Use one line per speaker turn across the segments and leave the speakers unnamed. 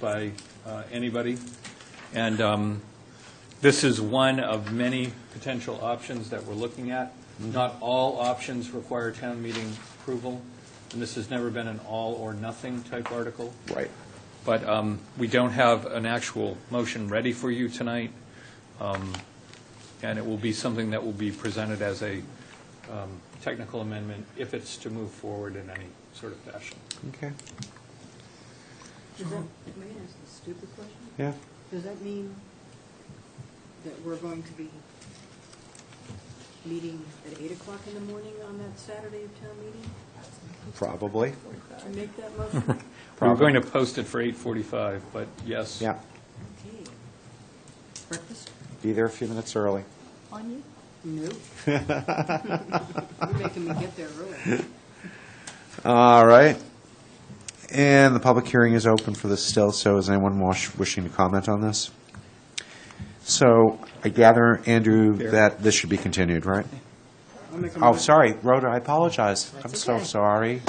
by uh, anybody. And um, this is one of many potential options that we're looking at. Not all options require town meeting approval, and this has never been an all-or-nothing type article.
Right.
But um, we don't have an actual motion ready for you tonight, Um, and it will be something that will be presented as a um, technical amendment if it's to move forward in any sort of fashion.
Okay,
Does that, may I ask a stupid question?
yeah.
Does that mean that we're going to be meeting at eight o'clock in the morning on that Saturday of town meeting
Probably,
to make that motion?
We were going to post it for 8:45, but yes.
yeah.
Okay. Breakfast?
Be there a few minutes early.
On you? No. You're making me get there early.
All right. And the public hearing is open for this still, so is anyone wash- wishing to comment on this? So I gather, Andrew,
Here.
that this should be continued, right?
I'll make a
Oh,
motion-
sorry, Rhoda, I apologize. I'm
That's
so
okay.
sorry.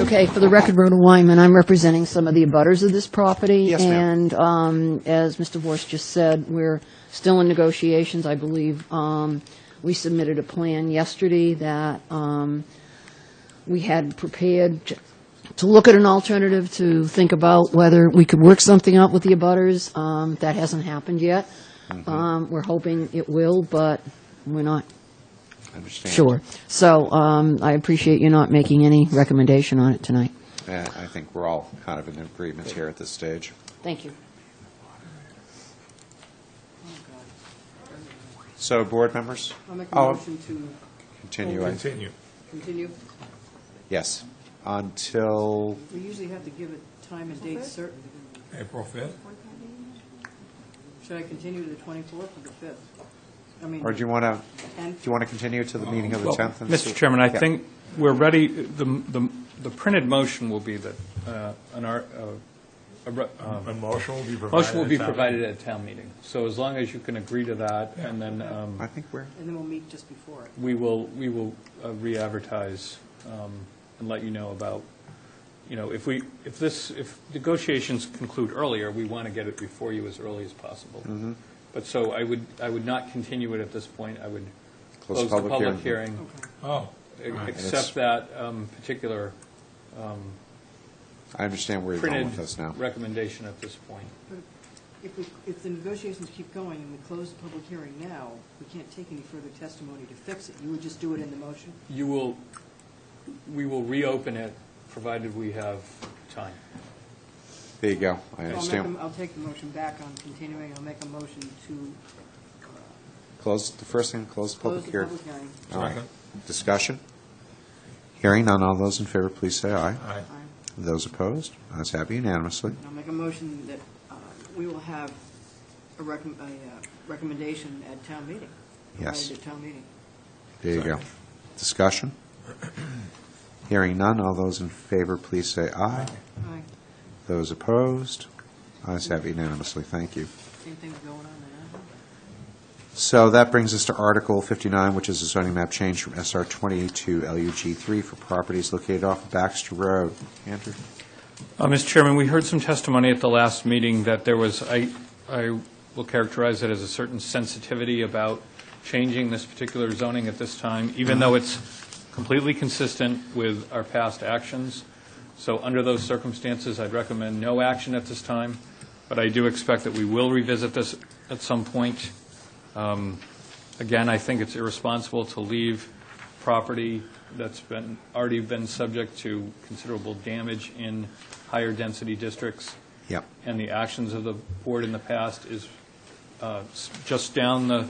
Okay, for the record, Rhoda Wyman, I'm representing some of the abutters of this property.
Yes, ma'am.
And um, as Mr. Vorst just said, we're still in negotiations, I believe. Um, We submitted a plan yesterday that um, we had prepared to- to look at an alternative, to think about whether we could work something out with the abutters. Um, That hasn't happened yet.
Mm-hmm.
Um, We're hoping it will, but we're not
Understand.
sure. So um, I appreciate you not making any recommendation on it tonight.
Yeah, I think we're all kind of in agreement here at this stage.
Thank you.
So, board members?
I'll make a
Oh,
motion to
Continue, I-
Continue.
continue.
yes, until,
We usually have to give it time and date certain.
April 5th?
Should I continue to the twenty-fourth or the fifth? I mean,
or do you want to, do
tenth?
you want to continue to the meeting of the
Well,
10th? and see-
Mr. Chairman, I
Yeah.
think we're ready, the, the- the printed motion will be that uh, an, ar- uh, a re- um,
A motion will be provided.
motion will be
at that-
provided at town meeting. So as long as you can agree to that, and then um,
I think we're,
And then we'll meet just before it.
we will, we will uh, re-advertise um, and let you know about, you know, if we, if this, if negotiations conclude earlier, we want to get it before you as early as possible.
Mm-hmm.
But so I would, I would not continue it at this point. I would
Close
close the
public
public
hearing.
hearing.
Okay.
Oh,
That's-
Except that um, particular
I understand where you're going
printed
with this now.
recommendation at this point.
If we, if the negotiations keep going and we close the public hearing now, we can't take any further testimony to fix it. You would just do it in the motion?
You will, we will reopen it, provided we have time.
There you go, I
So I'll make
understand.
a- I'll take the motion back on continuing. I'll make a motion to uh,
Close, the first thing, close the
close
public
the
hearing.
public hearing.
All right.
Second.
Discussion? Hearing none, all those in favor, please say aye.
Oh, aye.
Aye.
Those opposed, ayes have unanimously.
And I'll make a motion that uh, we will have a recom, a uh, recommendation at town meeting.
Yes.
provided At town meeting.
There you go. Discussion? Hearing none, all those in favor, please say aye.
Aye.
Those opposed, ayes have unanimously, thank you.
Same thing going on there.
So that brings us to Article 59, which is a zoning map change from SR 20 to LUG 3 for properties located off of Baxter Road. Andrew?
Uh, Mr. Chairman, we heard some testimony at the last meeting that there was, I, I will characterize it as a certain sensitivity about changing this particular zoning at this time, even though it's completely consistent with our past actions. So under those circumstances, I'd recommend no action at this time, but I do expect that we will revisit this at some point. Um, Again, I think it's irresponsible to leave property that's been, already been subject to considerable damage in higher density districts.
Yep.
And the actions of the board in the past is, uh, s- just down the,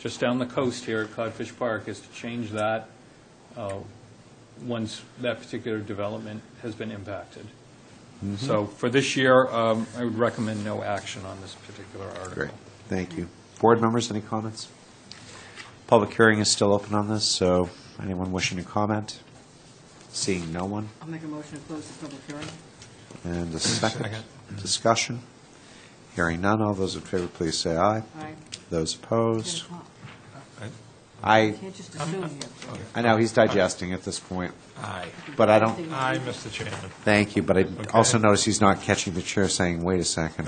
just down the coast here at Codfish Park, is to change that uh, once that particular development has been impacted.
Mm-hmm.
So for this year, um, I would recommend no action on this particular article.
Great, thank you. Board members, any comments? Public hearing is still open on this, so anyone wishing to comment? Seeing no one,
I'll make a motion to close the public hearing.
and a second,
Second.
discussion. Hearing none, all those in favor, please say aye.
Aye.
Those
Ten
opposed,
o'clock.
Aye.
I,
You can't just assume here.
I know he's digesting at this point,
Aye.
but I don't,
Aye, Mr. Chairman.
thank you, but I also notice he's not catching the chair saying, wait a second.